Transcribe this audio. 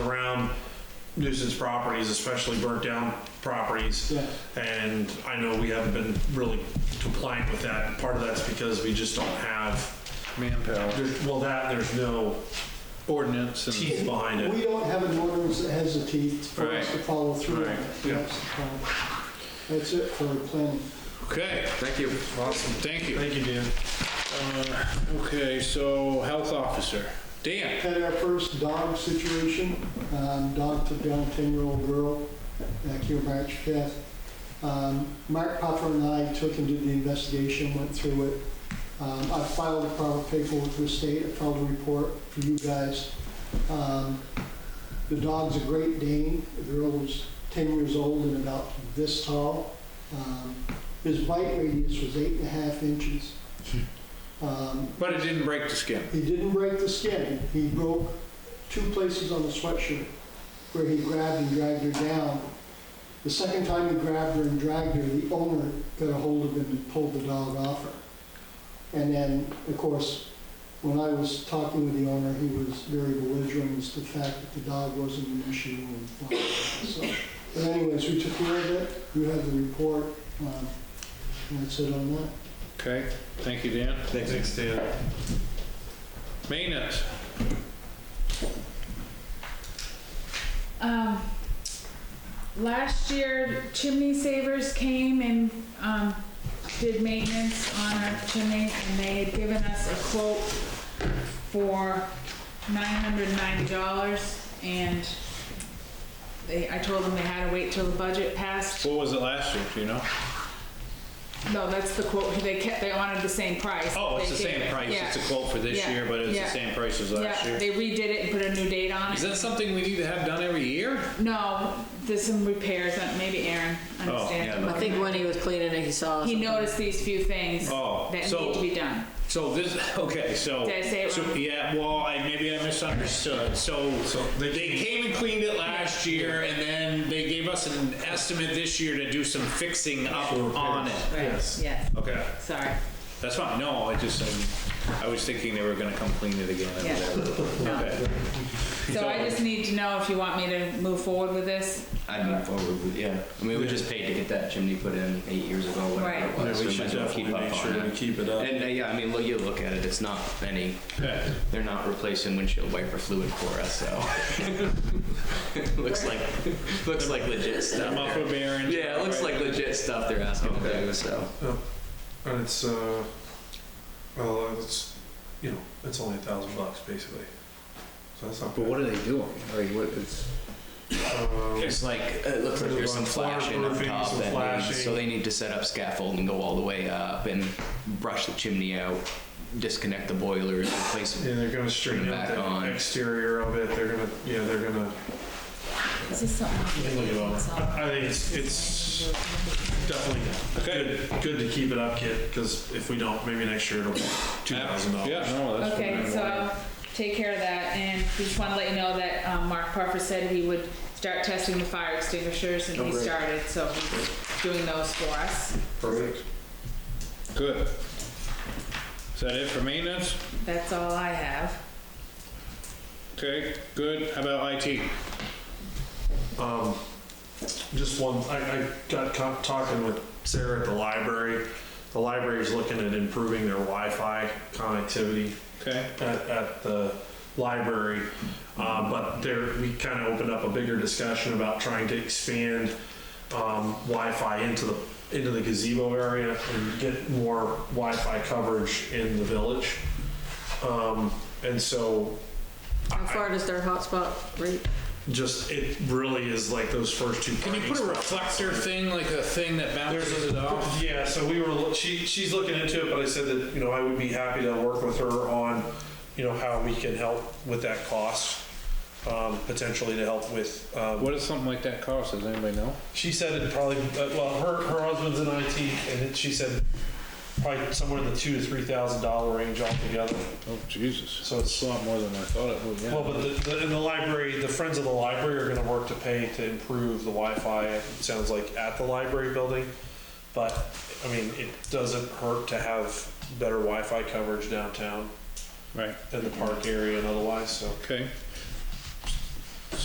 nuisance properties, especially burnt down properties. Yeah. And I know we haven't been really compliant with that. Part of that's because we just don't have, manpower, there's- well, that, there's no ordinance and, teeth behind We it. don't have an ordinance that has the teeth for us to Right. follow through. on. Right. Yeah. That's the problem. That's it for planning. okay, Thank you. Awesome. thank you. Thank you, Dan. Uh, Okay, so health officer, Dan. Had our first dog situation. Um, Dog took down a 10-year-old girl back here March 5th. Um, Mark Popper and I took and did the investigation, went through it. Um, I filed the proper paperwork with the state, I filed a report for you guys. Um, The dog's a Great Dane. The girl was 10 years old and about this tall. Um, His bite radius was eight and a half inches. Um, But it didn't break the skin. he didn't break the skin. He broke two places on the sweatshirt where he grabbed and dragged her down. The second time he grabbed her and dragged her, the owner got a hold of him and pulled the dog off her. And then, of course, when I was talking with the owner, he was very belligerent as to the fact that the dog wasn't an issue. and blah, blah, blah. So, But anyways, we took care of it. You have the report. um, And that's it on that. Okay, thank you, Dan. Thanks, Dan. Maintenance, Um, last year, chimney savers came and, um, did maintenance on our chimney, and they had given us a quote for nine hundred ninety dollars, and they, I told them they had to wait till the budget passed. what was it last year, do you know? No, that's the quote, they kept, they wanted the same price. Oh, it's They the gave same it. price, Yeah. it's a quote for this Yeah. year, but it's the Yeah. same price as last Yeah, year. they redid it and put a new date on Is it. that something we need to have done every year? No, there's some repairs, uh, maybe Aaron Oh, yeah, understands. no. I think when he was cleaning it, he saw He something. noticed these few things Oh, that so- need to be done. So this, okay, so. Did I say it so- wrong? Yeah, well, I, maybe I misunderstood. So, they- they came and cleaned it last year, and then they gave us an estimate this year to do some fixing up on it. Yes. Yes, Okay, sorry. that's fine, no, I just, um, I was thinking they were gonna come clean it again and Yeah. whatever. No. Okay. Um, So I just need to know if you want me to move forward with this. I'd move forward with, yeah. I mean, we just paid to get that chimney put in eight years ago, whatever it Right. Yeah, was. so we might should as well keep definitely up make on sure it. we keep it up. And uh, yeah, I mean, look, you look at it, it's not any, Okay. they're not replacing windshield wiper fluid for us, so. Looks like, looks like legit stuff. I'm up they're- for bearing. Yeah, it looks like legit stuff they're asking to do, so. And it's, uh, well, it's, you know, it's only a thousand bucks basically. So that's not But bad. what are they doing? Like, what, it's, Um, It's like, it looks like Uh, there's some flashing up Floor top, roofing, some that needs- so flashing. they need to set up scaffold and go all the way up and brush the chimney out, disconnect the boilers, replace Yeah, they're gonna straighten out back the on. exterior of it, they're gonna, yeah, they're gonna, Is this something? look it over. I I think it's, it's definitely good, good to keep it up, kid, cause if we don't, maybe next year it'll be two thousand dollars. Yeah, no, that's. what Okay, I so wanted. I'll take care of that and just want to let you know that um, Mark Parker said he would start testing the fire extinguishers Oh, and he started, so he's doing those for us. Perfect. Good. Is that it for maintenance? That's all I have. Okay, good. How about IT? Um, just one, I, I got co- talking with Sarah at the library. The library's looking at improving their Wi-Fi connectivity Okay, at, at the library. Um, but there, we kind of opened up a bigger discussion about trying to expand um, Wi-Fi into the into the gazebo area and get more Wi-Fi coverage in the village. Um, and so How far does their hotspot reach? just it really is like those first two. can you put a reflector thing, like a thing that bounces it off? Yeah, so we were, lo- she, she's looking into it, but I said that, you know, I would be happy to work with her on, you know, how we can help with that cost, um, potentially to help with, um, What does something like that cost? Does anybody know? she said it probably, uh, well, her, her husband's in IT, and it- she said probably somewhere in the two to three thousand dollar range altogether. Oh, Jesus. So So it's- it's a lot more than I thought it would, Well, yeah. but the, the, in the library, the friends of the library are gonna work to pay to improve the Wi-Fi, it sounds like, at the library building. But, I mean, it doesn't hurt to have better Wi-Fi coverage downtown Right, in the park area and otherwise, so. okay.